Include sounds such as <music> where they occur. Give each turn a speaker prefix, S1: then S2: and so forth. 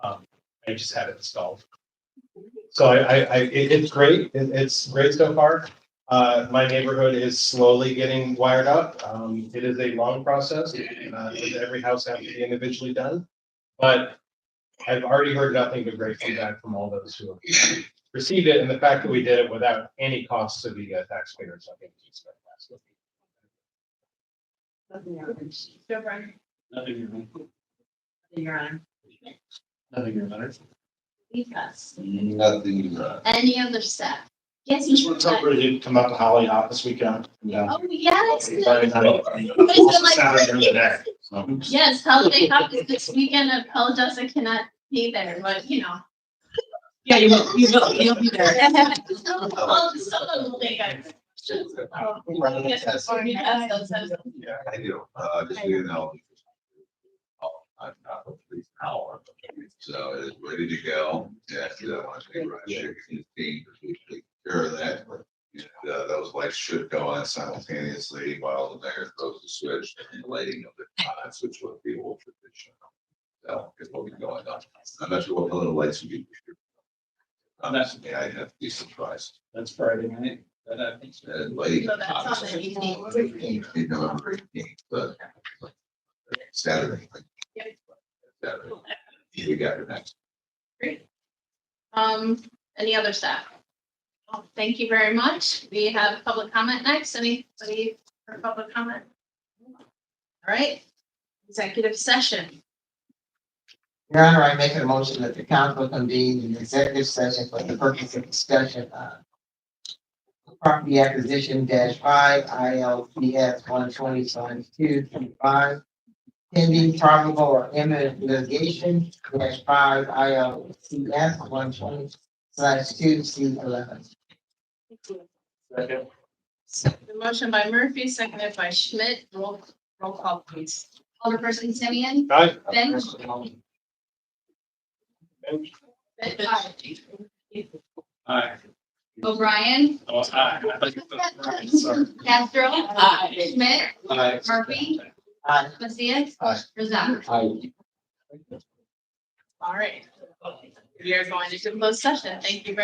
S1: I just had it installed. So I, I, I, it, it's great, it, it's great so far. Uh, my neighborhood is slowly getting wired up, um, it is a long process, uh, with every house having to be individually done. But I've already heard nothing but great feedback from all those who have received it, and the fact that we did it without any cost to the uh, taxpayers, I think. is fantastic.
S2: Nothing on. Joe Brian,
S3: Nothing here, man.
S2: nothing on.
S3: Nothing here, man.
S4: Because
S5: Nothing, uh,
S4: any other stuff? Yes, you
S3: What's up, Bridget? Come up to Holly Hop this weekend. Yeah.
S4: Oh, yes.
S3: Friday night.
S4: But it's like-
S3: Saturday the day, so.
S4: Yes, holiday hop is this weekend. I apologize, I cannot be there, but you know.
S2: Yeah, you will, you will, you'll be there.
S4: Well, Someone will think I. Oh,
S5: Running a
S4: yes,
S5: test.
S4: or you have those, those-
S5: yeah, I do, uh, just doing that. Oh, I'm not a police power, so it's ready to go, yeah, so I want to run chicken and beef, we take care of that. And, Uh, those lights should go on simultaneously while the mayor throws the switch and the lighting of the pods, which would be old traditional. So, it's what we going on, I'm not sure what color the lights would be. Honestly, I have to be surprised,
S3: That's Friday night. That happens.
S5: and lighting.
S4: So that's on the evening.
S5: In November eighteenth, but. Saturday. like, Saturday. We got it next.
S4: Um, any other stuff? Well, Thank you very much. We have public comment next. Anybody for public comment? All right, executive session.
S6: Your Honor, I make a motion that the council convene an executive session for the purpose of discussion of property acquisition dash five, ILCS one twenty sign two two five, pending probable or imminent litigation dash five, ILCS one twenty slash two C eleven.
S3: Second.
S4: The motion by Murphy, seconded by Schmidt. Roll, roll call please.
S7: Alderperson Simeon,
S1: Aye.
S7: Bench,
S3: Aye.
S7: O'Brien,
S3: Oh,
S7: <laughs>
S3: aye. I thought you said Friday, sorry.
S7: Castro, Schmidt,
S3: Aye.
S7: Murphy,
S6: Aye.
S7: Macias,
S5: Aye.
S7: Rosado.
S4: All right. We are going to close session. Thank you very